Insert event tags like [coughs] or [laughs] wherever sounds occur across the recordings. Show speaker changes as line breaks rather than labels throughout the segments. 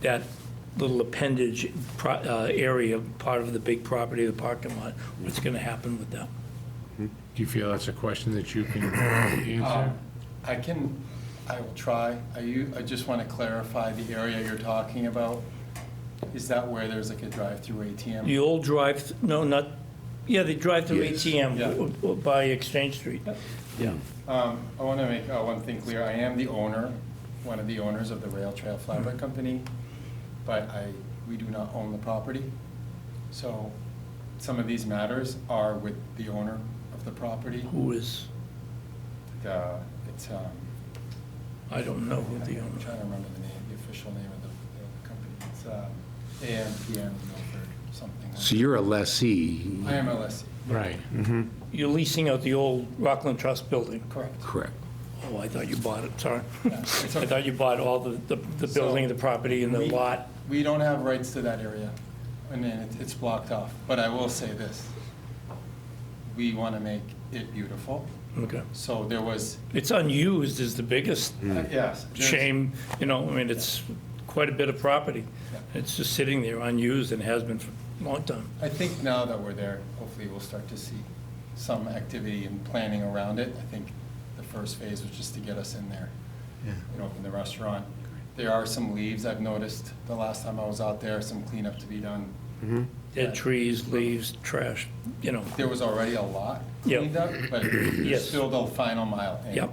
that little appendage pro- uh, area, part of the big property, the parking lot, what's going to happen with that?
Do you feel that's a question that you
[coughs]
can
Um,
answer?
I can, I will try. I, u- I just want to clarify the area you're talking about. Is that where there's like a drive-through ATM?
The old drive, no, not, yeah, the drive-through
Yes.
ATM
Yeah.
w- w- by Exchange Street.
Yeah.
Um, I want to make uh, one thing clear. I am the owner, one of the owners of the Rail Trail Flower
Mm-hmm.
Company, but I, we do not own the property. So some of these matters are with the owner of the property.
Who is,
The- It's, um,
I don't know who
I'm
the owner
trying to remember the name, the official name of the the company. It's uh, AMPM Milford, something. like
So you're a lessee,
I am E. a lessee.
Right.
You're leasing out the old Rockland Trust building.
Correct.
correct?
Oh, I thought you bought it, sorry. [laughs]
Yeah,
I
it's okay.
thought you bought all the, the the building, the property, and the
We-
lot.
We don't have rights to that area, and then it- it's blocked off. But I will say this, we want to make it beautiful.
Okay.
So there was,
It's unused is the biggest
yes. there's-
shame, you know, I mean, it's quite a bit of property.
Yeah.
It's just sitting there unused and has been for a long time.
I think now that we're there, hopefully we'll start to see some activity and planning around it. I think the first phase was just to get us in there and open the restaurant. There are some leaves I've noticed the last time I was out there, some cleanup to be done.
Dead trees, leaves, trash, you know,
There was already a lot
Yeah.
cleaned up,
[clears throat]
but there's
Yes.
still the final mile. And
Yep.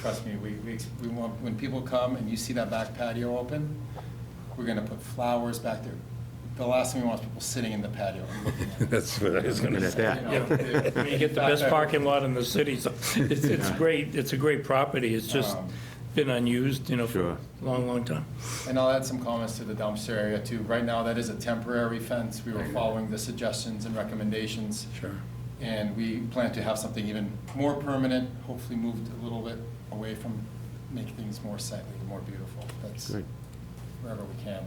Trust me, we, we, we want, when people come and you see that back patio open, we're gonna put flowers back there. The last thing we want is people sitting in the patio and looking
[laughs]
[laughs]
at it.
That's what I was going to
You
say.
know,
I mean, you get the
back
best
there.
parking lot in the city, so it's, it's great, it's a great property, it's just
Um,
been unused, you know, for a
Sure.
long, long time.
And I'll add some comments to the dumpster area too. Right now, that is a temporary fence. We were following the suggestions and recommendations.
Sure.
And we plan to have something even more permanent, hopefully moved a little bit away from, make things more sightly, more beautiful. That's
Good.
wherever we can.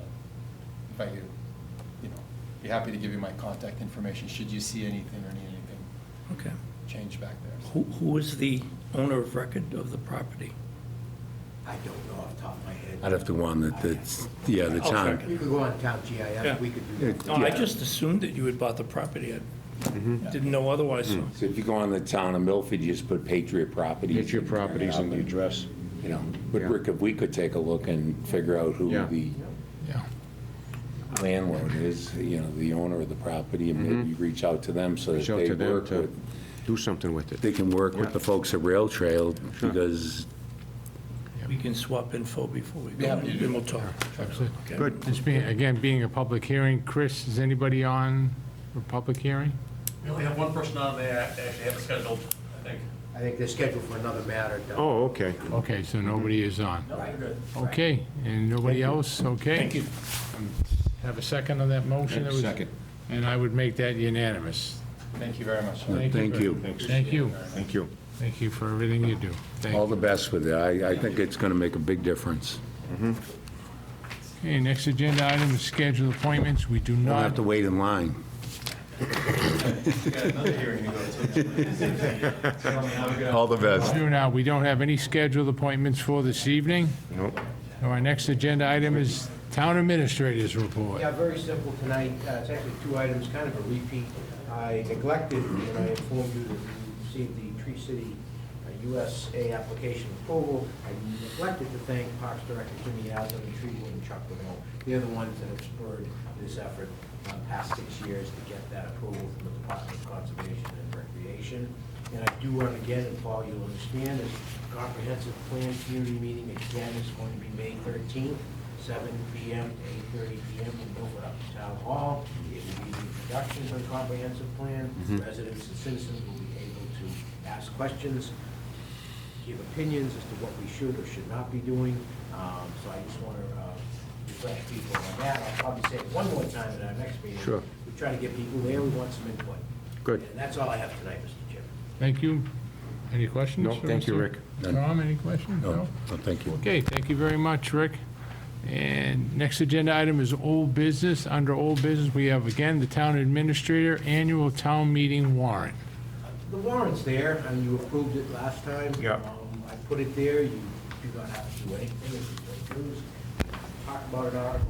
If I could, you know, be happy to give you my contact information should you see anything or need anything
Okay.
changed back there.
Who, who is the owner of record of the property?
I don't know off the top of my head.
I'd have to warn that, that's, yeah, the
I'll
town.
check.
We could go on town
Yeah.
GIS, we could do
No,
that.
I
Yeah.
just assumed that you had bought the property, I didn't know otherwise, so.
Mm-hmm.
So if you go on the town of Milford, you just put Patriot Properties.
Get your properties and the address.
You know, but
Yeah.
Rick, if we could take a look and figure out who
Yeah.
the
Yeah.
landlord is, you know, the owner of the property, and maybe reach out to them so that
Show
they
to them
work
to
with.
do something with it.
They can work with the folks at Rail Trail because
We can swap info before we go,
Yeah.
and then we'll talk. Okay.
Good. This being, again, being a public hearing, Chris, is anybody on for public hearing?
We only have one person on there, actually have it scheduled, I think.
I think they're scheduled for another matter. though.
Oh, okay.
Okay, so
Mm-hmm.
nobody is on.
Right.
Okay, and nobody else, okay? Thank you. Have a second on that motion? that was-
Second.
And I would make that unanimous.
Thank you very much.
Thank you.
Thank you.
Thank you.
Thank you for everything you do. Thank you.
All the best with it. I, I think it's going to make a big difference.
Okay, next agenda item is scheduled appointments. We do
You don't have
not,
to wait in line.
We got another hearing to go to. Tell me how we got-
All the best.
do now, we don't have any scheduled appointments for this evening.
Nope.
So Our next agenda item is Town Administrator's Report.
Yeah, very simple tonight. Uh, It's actually two items, kind of a repeat. I neglected, when I informed you that we received the Tree City uh, USA application approval, I neglected to thank Parks Director Jimmy Yaz and the Tree Board and Chuck Lavelle. They're the ones that have spurred this effort uh, past six years to get that approval from the Department of Conservation and Recreation. And I do want to again, and Paul, you'll understand, is comprehensive plan community meeting again is going to be May 13th. 7 PM to 8:30 PM in Milford Upper Town Hall. It will be the introduction to the comprehensive plan. Residents and citizens will be able to ask questions, give opinions as to what we should or should not be doing. Um, So I just want to refresh people on that. I'll probably say it one more time at our next meeting.
Sure.
We try to get people there, we want some input.
Good.
And that's all I have tonight, Mr. Chairman.
Thank you. Any questions?
No,
for
thank you,
Mr.
Rick. None.
Tom, any questions?
Oh,
No, no, thank you.
Okay, thank you very much, Rick. And next agenda item is old business. Under old business, we have again the Town Administrator Annual Town Meeting Warrant.
The warrant's there, and you approved it last time.
Yeah.
Um, I put it there, you do not have to do anything, it's great news. Talk about an article